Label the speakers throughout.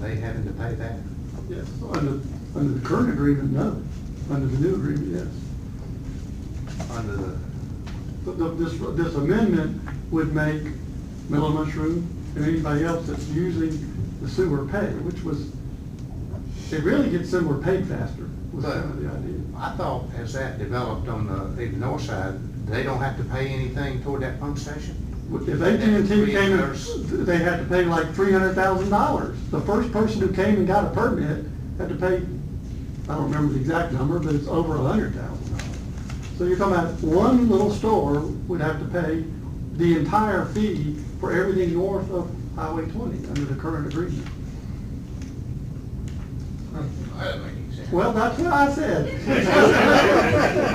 Speaker 1: they having to pay that?
Speaker 2: Yes, oh, under, under the current agreement, no. Under the new agreement, yes.
Speaker 1: Under the,
Speaker 2: But the- this, this amendment would make Miller Mushroom and anybody else that's using the sewer pay, which was, it really gets sewer paid faster, was
Speaker 1: But-
Speaker 2: kind of the idea.
Speaker 1: I thought as that developed on the, the north side, they don't have to pay anything toward that pump station?
Speaker 2: If AT&T came in, they had to pay like three hundred thousand dollars. The first person who came and got a permit had to pay, I don't remember the exact number, but it's over a hundred thousand dollars. So you're talking about one little store would have to pay the entire fee for everything north of Highway twenty under the current agreement.
Speaker 1: That doesn't make any sense.
Speaker 2: Well, that's what I said.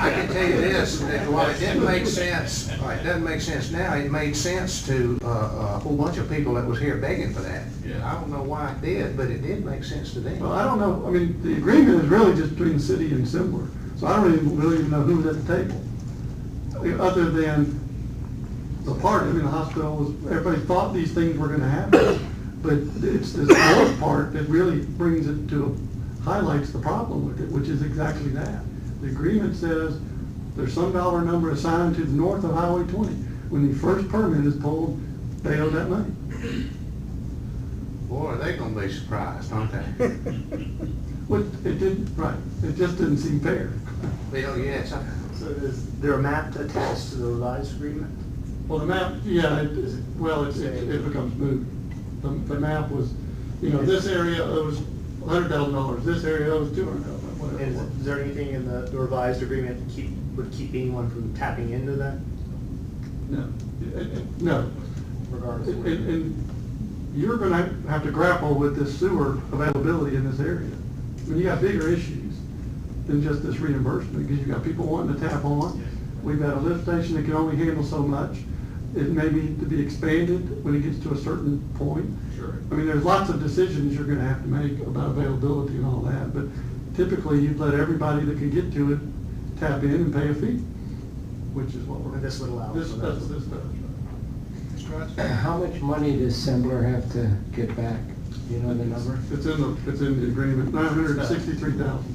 Speaker 1: I can tell you this, that while it didn't make sense, all right, it doesn't make sense now, it made sense to uh, a whole bunch of people that was here begging for that.
Speaker 3: Yeah.
Speaker 1: I don't know why it did, but it did make sense to them.
Speaker 2: Well, I don't know, I mean, the agreement is really just between the city and Sembler, so I don't even, really even know who was at the table. I mean, Other than the party, I mean, the hospital was, everybody thought these things were gonna happen, but it's this other part that really brings it to, highlights the problem with it, which is exactly that. The agreement says there's some dollar number assigned to the north of Highway twenty. When the first permit is pulled, they owe that money.
Speaker 1: Boy, they're gonna be surprised, aren't they?
Speaker 2: Which, it didn't, right, it just didn't seem fair.
Speaker 1: Bill, yes, I-
Speaker 4: So is there a map attached to the revised agreement?
Speaker 2: Well, the map, yeah, it is, well, it's, it it becomes moot. The, the map was, you know, this area owes hundred thousand dollars, this area owes two hundred thousand, whatever. it
Speaker 4: And
Speaker 2: was.
Speaker 4: is there anything in the the revised agreement that keep, would keep anyone from tapping into that
Speaker 2: No, It- it- no.
Speaker 4: regardless? of
Speaker 2: And,
Speaker 4: where-
Speaker 2: and you're gonna have to grapple with this sewer availability in this area. I mean, you got bigger issues than just this reimbursement, because you got people wanting to tap on. We've got a lift station that can only handle so much. It may need to be expanded when it gets to a certain point.
Speaker 3: Sure.
Speaker 2: I mean, there's lots of decisions you're gonna have to make about availability and all that, but typically you'd let everybody that can get to it tap in and pay a fee, which is what we're.
Speaker 4: And this would allow
Speaker 2: This,
Speaker 4: for that.
Speaker 2: that's what this does. right.
Speaker 5: How much money does Sembler have to get back? Do you know the number?
Speaker 2: It's in the, it's in the agreement, nine hundred and sixty-three thousand.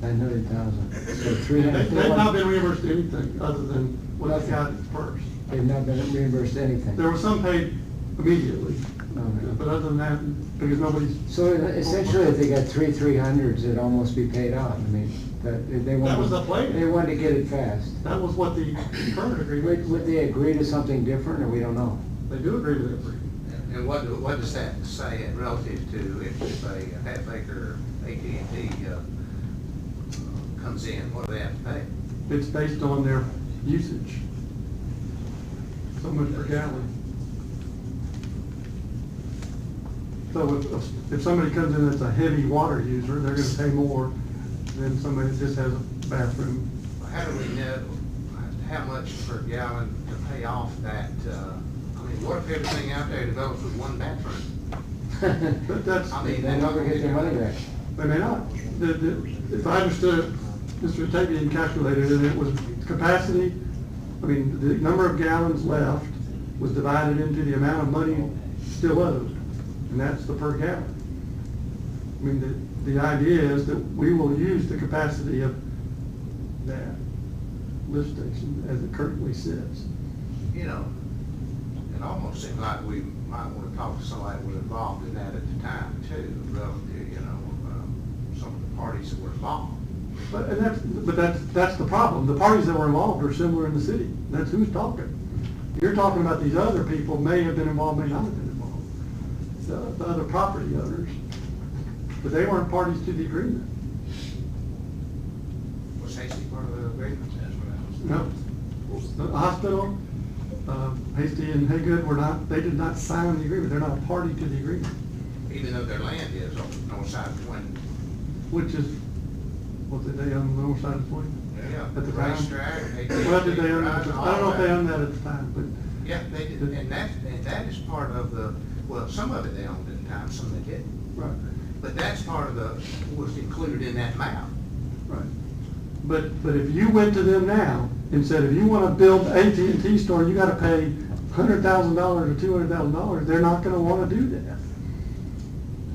Speaker 5: Nine hundred thousand. So
Speaker 2: They,
Speaker 5: three hundred.
Speaker 2: they've not been reimbursed anything other than what they got first.
Speaker 5: They've not been reimbursed anything.
Speaker 2: There was some paid immediately, but
Speaker 5: Okay.
Speaker 2: other than that, because nobody's.
Speaker 5: So essentially, if they got three three hundreds, it'd almost be paid out. I mean, that, they wanted.
Speaker 2: was the plan.
Speaker 5: They wanted to get it fast.
Speaker 2: That was what the current
Speaker 5: Would, would
Speaker 2: agreement,
Speaker 5: they agree to something different, or we don't know?
Speaker 2: they do agree with that agreement.
Speaker 1: and what, what does that say in relative to if, if a half acre AT&T, uh, comes in, what do they have to pay?
Speaker 2: It's based on their usage. So much per gallon. So if, if somebody comes in that's a heavy water user, they're gonna pay more than somebody that just has a bathroom.
Speaker 1: How do we know how much per gallon to pay off that, uh, I mean, what if everything out there develops with one bathroom?
Speaker 2: But that's,
Speaker 1: I
Speaker 5: They're
Speaker 1: mean,
Speaker 5: not gonna get their money back.
Speaker 2: they may not. The- the- if I understood, it, Mr. Tavian calculated it, it was capacity, I mean, the number of gallons left was divided into the amount of money still owed, and that's the per gallon. I mean, the, the idea is that we will use the capacity of that lift station as it currently sits.
Speaker 1: You know, it almost seemed like we might wanna talk to somebody that was involved in that at the time too, relative, you know, um, some of the parties that were involved.
Speaker 2: But, and that's, but that's, that's the problem. The parties that were involved are similar in the city. That's who's talking. You're talking about these other people may have been involved, may not have been involved. The, the other property owners. But they weren't parties to the agreement.
Speaker 1: Was Hasty part of the agreement? That's what I was.
Speaker 2: No. The hospital, uh, Hasty and Haygood were not, they did not sign the agreement. They're not a party to the agreement,
Speaker 1: Even though their land is on the north side of Twin.
Speaker 2: which is, what did they own the north side of the point?
Speaker 1: Yeah.
Speaker 2: At the time.
Speaker 1: Racetrack. AT&T,
Speaker 2: Well, did they own, I
Speaker 1: Verizon,
Speaker 2: don't
Speaker 1: all
Speaker 2: know if they
Speaker 1: that.
Speaker 2: owned that at the time, but
Speaker 1: Yeah, they did, and that, and that is part of the, well, some of it they owned at the time, some they didn't.
Speaker 2: Right,
Speaker 1: But that's part of the, was included in that map.
Speaker 2: right. But, but if you went to them now and said, if you wanna build AT&T store, you gotta pay hundred thousand dollars or two hundred thousand dollars, they're not gonna wanna do that.